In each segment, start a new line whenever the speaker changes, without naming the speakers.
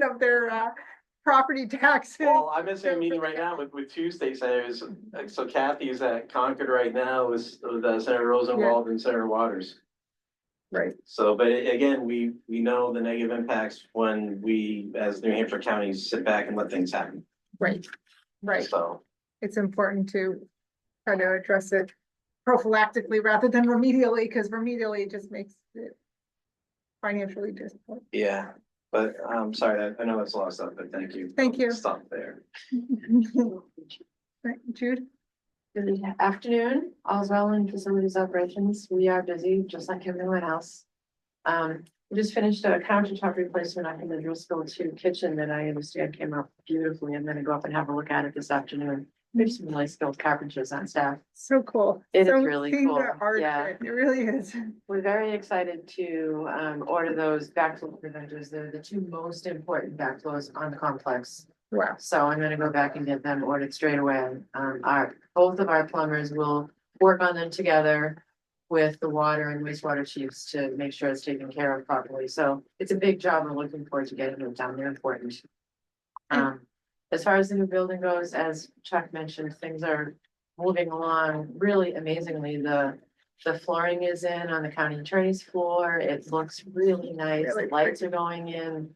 of their uh property taxes.
Well, I'm missing a meeting right now with, with Tuesday, so it was, so Kathy's at Concord right now with, with uh, Senator Rosenwald and Senator Waters.
Right.
So, but a- again, we, we know the negative impacts when we, as New Hampshire counties, sit back and let things happen.
Right,
mm-hmm.
right.
So,
It's important to try to address it prophylactically rather than remedially, because remedially just makes it financially difficult.
yeah, but I'm sorry, I- I know that's a lot of stuff, but thank you.
Thank you.
Stop there.
Mm-hmm.
Right, Jude,
Good afternoon, all's well in facilities operations. We are busy, just like everyone else. Um, we just finished a countertop replacement up in the Driscoll two kitchen that I understand came out beautifully. I'm gonna go up and have a look at it this afternoon. There's some nice skilled carpenters on staff.
so cool.
It is
So
really
seeing the
cool,
art of
yeah.
It it really is.
We're very excited to um order those backflow preventers. They're the two most important backflows on the complex.
Wow.
So I'm gonna go back and get them ordered straight away. Um, our, both of our plumbers will work on them together. With the water and wastewater chiefs to make sure it's taken care of properly. So it's a big job. We're looking forward to getting them down. They're important. Um, as far as the new building goes, as Chuck mentioned, things are moving along really amazingly. The. The flooring is in on the county attorney's floor. It looks really nice.
Really
The lights are going in.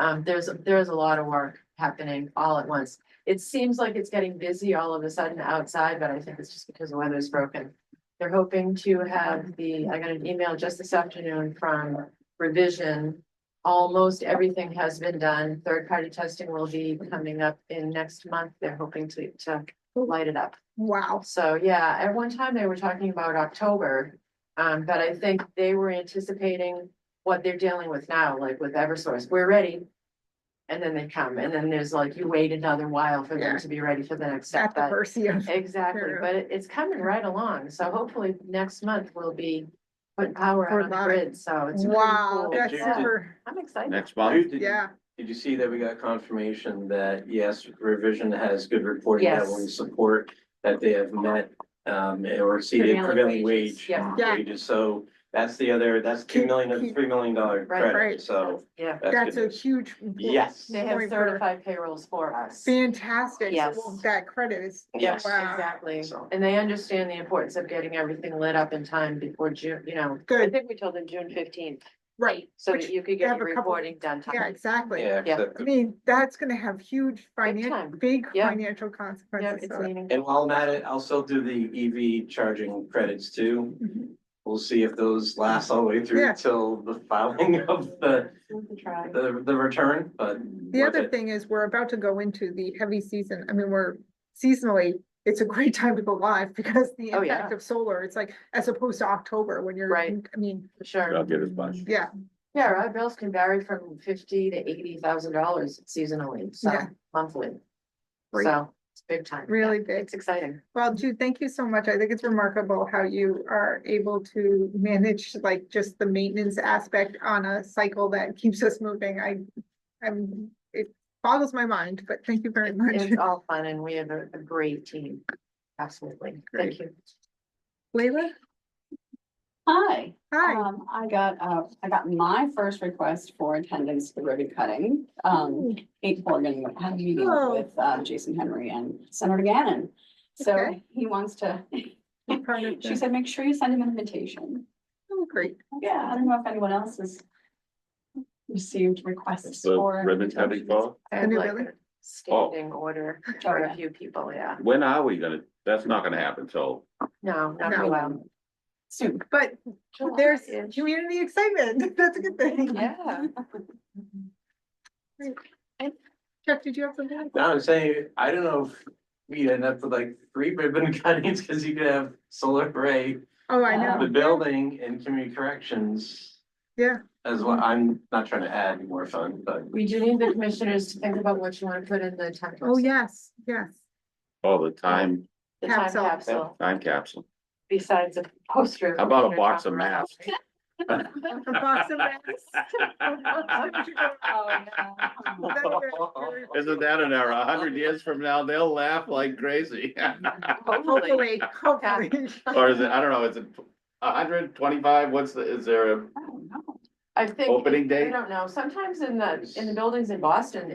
Um, there's, there's a lot of work happening all at once. It seems like it's getting busy all of a sudden outside, but I think it's just because the weather's broken. They're hoping to have the, I got an email just this afternoon from revision. Almost everything has been done. Third party testing will be coming up in next month. They're hoping to, to light it up.
Wow.
So yeah, at one time they were talking about October. Um, but I think they were anticipating what they're dealing with now, like with Eversource, we're ready. And then they come and then there's like, you wait another while for
Yeah.
them to be ready for the next step.
At the
But
mercy of,
Exactly,
Sure.
but it- it's coming right along, so hefully next month we'll be putting power
We're
out on the
live.
grid, so it's. really
wow,
cool.
that's
Yeah.
super,
I'm excited.
Next month,
Did-
yeah,
Did you see that we got confirmation that yes, revision has good reporting that
Yes.
will support that they have met um or exceeded
Prevailing
prevailing
wages,
wage. um,
yeah.
Yeah.
Wages, so that's the other, that's two
Keep-
million of the
keep-
three million dollar
Right,
right.
credit, so.
Yeah,
that's
good
a
news.
huge.
Yes.
they have
Point for-
certified payrolls for us.
Fantastic. So,
Yes.
well, That credit is.
Yes.
Wow.
Exactly,
So-
and they understand the importance of getting everything lit up in time before June, you know. I
Good,
think we told them June fifteenth,
right.
so
Which-
that you could get
have
your
a couple-
reporting done.
Yeah,
time.
exactly.
Yeah.
Yeah.
I
so-
mean, that's gonna have huge financial,
time.
big
Yeah.
financial
Yeah,
consequences.
it's
so-
meaning,
And while I'm at it, I'll still do the EV charging credits too.
Mhm.
We'll see if those last all the way through
Yeah.
till the filing of the
we can try.
the the return, but.
The
worth
other
it.
thing is, we're about to go into the heavy season. I mean, we're seasonally, it's a great time to go live because the
Oh,
impact of solar, it's like, as opposed to October when you're.
Right.
I mean,
for sure.
I'll get as much.
yeah,
Yeah, our bills can vary from fifty to eighty thousand dollars seasonally, so
Yeah.
monthly.
Great.
So it's big time. Yeah,
really big.
It's exciting.
Well, Jude, thank you so much. I think it's remarkable how you are able to manage like just the maintenance aspect on a cycle that keeps us moving. I, I'm, it boggles my mind, but thank you very much.
It's all fun and we have a, a great team. Absolutely. Thank
Great.
you.
Leila,
Hi,
hi.
um, I got, uh, I got my first request for attendance for ribbon cutting. Um, Kate Horgan had a meeting
Oh.
with, uh, Jason Henry and Senator Gannon. So
Okay.
he wants to,
You're part of
she
the-
said, make sure you send him an invitation.
Oh, Great.
Yeah, I don't know if anyone else has received requests
The
for.
ribbon cutting fall.
I
Any
have like
other?
a standing order for a few people, Oh, yeah.
When are we gonna, that's not gonna happen till,
No, not for a
No.
while.
Soon.
But
July
there's
is-
community excitement. That's a good thing.
Yeah.
Chuck, did you have something?
No, I'm saying, I don't know if we end up with like three ribbon cuttings, because you could have solar array,
Oh, I
Yeah.
the
know.
building and community corrections.
Yeah.
As well, I'm not trying to add more fun, but
We do need the commissioners to think about what you want to put in the time.
Oh, yes, yes.
oh, the time,
The time
Capsule.
capsule,
time capsule.
besides a poster.
How about a box of masks?
A box of masks.
Oh, yeah.
That's very-
Isn't that an error? A hundred years from now, they'll laugh like crazy.
Hopefully.
Hopefully, hopefully.
Or is it, I don't know, is it a hundred, twenty-five, what's the, is there a
I don't know.
I think.
Opening day?
I don't know. Sometimes in the, in the buildings in Boston,